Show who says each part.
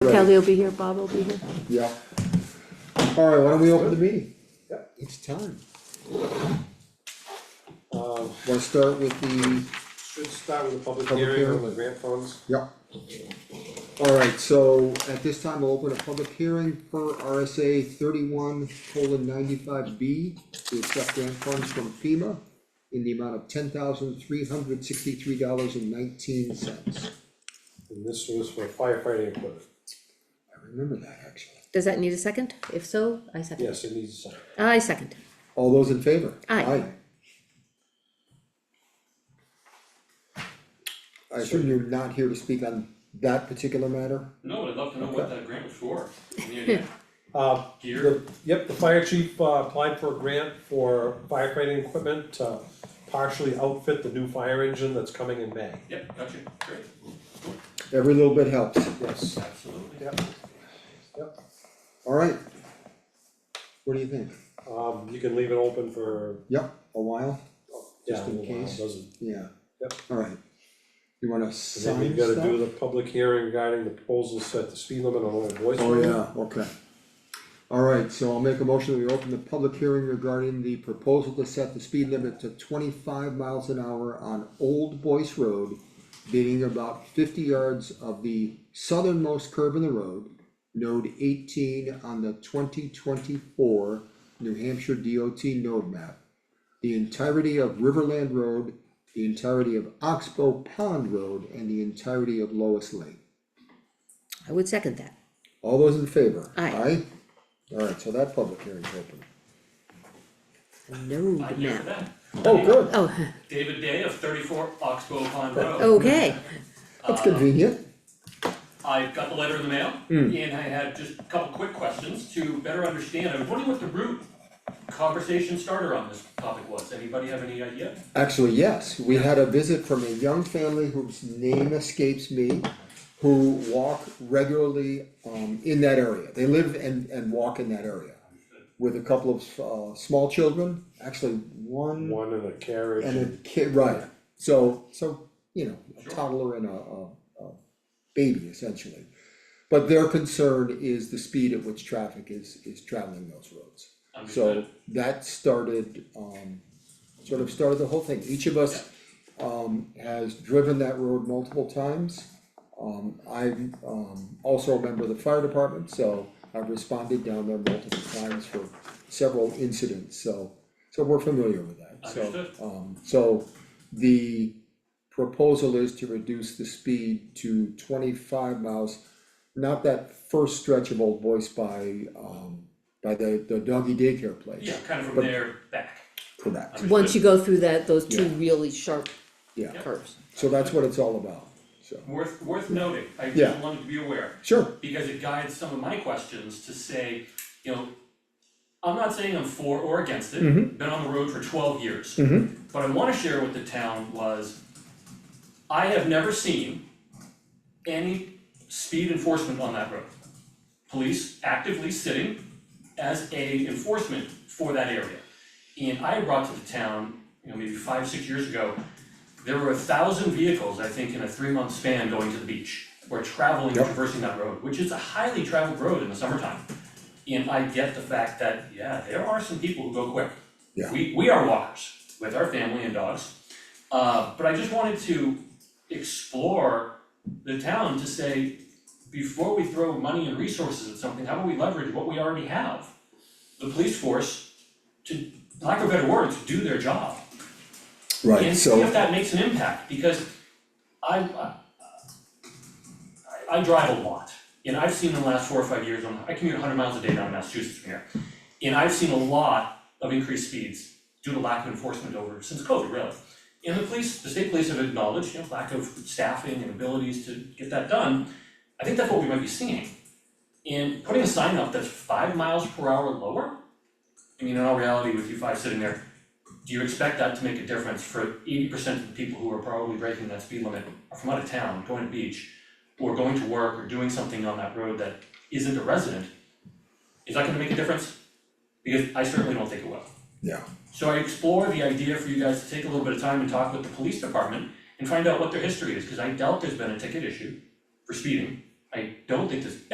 Speaker 1: Kelly will be here, Bob will be here.
Speaker 2: Yeah. Alright, why don't we open the meeting? Um,
Speaker 3: It's time.
Speaker 4: Uh,
Speaker 2: Wanna start with the,
Speaker 4: should start with a public
Speaker 2: Public
Speaker 4: hearing on
Speaker 2: hearing.
Speaker 4: the grant funds.
Speaker 2: yeah. Alright, so at this time, we'll open a public hearing for RSA thirty-one colon ninety-five B to accept grant funds from FEMA in the amount of ten thousand three hundred sixty-three dollars and nineteen cents.
Speaker 4: And this was for firefighting equipment.
Speaker 2: I remember that actually.
Speaker 1: Does that need a second? If so, I second.
Speaker 4: Yes, it needs a second.
Speaker 1: I second.
Speaker 2: All those in favor?
Speaker 1: Aye.
Speaker 2: I assume you're not here to speak on that particular matter?
Speaker 5: No, I'd love to know what that grant was for. Any idea?
Speaker 2: Um,
Speaker 4: Uh,
Speaker 5: Gear,
Speaker 4: the, yep, the fire chief uh, applied for a grant for firefighting equipment to partially outfit the new fire engine that's coming in May.
Speaker 5: yep, gotcha, great,
Speaker 2: Every little bit helps.
Speaker 4: Yes.
Speaker 5: absolutely.
Speaker 4: Yep. Yep,
Speaker 2: Alright. What do you think?
Speaker 4: um, you can leave it open for,
Speaker 2: Yep, a while?
Speaker 4: yeah,
Speaker 2: Just
Speaker 4: a
Speaker 2: in
Speaker 4: little while,
Speaker 2: case.
Speaker 4: doesn't.
Speaker 2: Yeah.
Speaker 4: Yep.
Speaker 2: Alright. You wanna
Speaker 4: And then
Speaker 2: sign
Speaker 4: we've gotta do
Speaker 2: stuff?
Speaker 4: the public hearing regarding the proposal to set the speed limit on Old Boys.
Speaker 2: Oh,
Speaker 4: Road.
Speaker 2: yeah, okay. Alright, so I'll make a motion that we open the public hearing regarding the proposal to set the speed limit to twenty-five miles an hour on Old Boyce Road. Being about fifty yards of the southernmost curve in the road, node eighteen on the twenty twenty-four New Hampshire DOT node map. the entirety of Riverland Road, the entirety of Oxbow Pond Road, and the entirety of Lois Lane.
Speaker 1: I would second that.
Speaker 2: All those in favor?
Speaker 1: Aye.
Speaker 2: Aye? Alright, so that public hearing's open.
Speaker 1: No,
Speaker 5: I'm here for
Speaker 1: map.
Speaker 5: that.
Speaker 2: Oh, good,
Speaker 1: Oh,
Speaker 5: David Day of thirty-four Oxbow Pond Road.
Speaker 1: okay.
Speaker 2: that's convenient.
Speaker 5: I got the letter in the mail,
Speaker 2: Hmm.
Speaker 5: and I had just a couple quick questions to better understand. I was wondering what the root conversation starter on this topic was. Anybody have any idea?
Speaker 2: Actually, yes, we had a visit from a young family whose name escapes me, who walk regularly, um, in that area. They live and, and walk in that area with a couple of, uh, small children, actually one
Speaker 4: One in a carriage.
Speaker 2: And a kid, right, so, so, you know, a
Speaker 5: Sure.
Speaker 2: toddler and a, a, a baby essentially. But their concern is the speed at which traffic is, is traveling those roads. So
Speaker 5: Understood.
Speaker 2: that started, um, sort of started the whole thing, each of us, um, has driven that road multiple times. Um, I'm, um, also a member of the fire department, so I've responded down there multiple times for several incidents, so, so we're familiar with that, so.
Speaker 5: Understood.
Speaker 2: Um, so the proposal is to reduce the speed to twenty-five miles. Not that first stretch of Old Voice by, um, by the, the doggy daycare place.
Speaker 5: Yeah, kind of
Speaker 2: But-
Speaker 5: from there back.
Speaker 2: Correct,
Speaker 5: Understood.
Speaker 1: Once you go through that, those two
Speaker 2: Yeah.
Speaker 1: really sharp
Speaker 2: yeah,
Speaker 1: curves.
Speaker 2: so that's what it's all about, so,
Speaker 5: Worth, worth noting. I just
Speaker 2: Yeah.
Speaker 5: wanted to be aware.
Speaker 2: sure,
Speaker 5: because it guides some of my questions to say, you know, I'm not saying I'm for or against it, been on the road for twelve years. But I wanna share with the town was, I have never seen any speed enforcement on that road. Police actively sitting as a enforcement for that area. And I brought to the town, you know, maybe five, six years ago, there were a thousand vehicles, I think, in a three-month span going to the beach, or traveling,
Speaker 2: Yep.
Speaker 5: traversing that road, which is a highly traveled road in the summertime. And I get the fact that, yeah, there are some people who go quick.
Speaker 2: Yeah.
Speaker 5: We, we are walkers with our family and dogs. Uh, but I just wanted to explore the town to say, before we throw money and resources at something, how about we leverage what we already have? The police force to, lack of a better word, to do their job.
Speaker 2: right,
Speaker 5: And see if
Speaker 2: so,
Speaker 5: that makes an impact, because I, I, I drive a lot, and I've seen in the last four or five years, I'm- I commute hundred miles a day down to Massachusetts from here. And I've seen a lot of increased speeds due to lack of enforcement over, since COVID really. And the police, the state police have acknowledged, you know, lack of staffing and abilities to get that done. I think that's what we might be seeing. And putting a sign up that's five miles per hour lower, I mean, in all reality, with you five sitting there, do you expect that to make a difference for eighty percent of the people who are probably breaking that speed limit are from out of town, going to beach, or going to work or doing something on that road that isn't a resident? Is that gonna make a difference? Because I certainly don't think it will.
Speaker 2: yeah,
Speaker 5: So I explore the idea for you guys to take a little bit of time and talk with the police department and find out what their history is, cause I doubt there's been a ticket issue for speeding. I don't think there's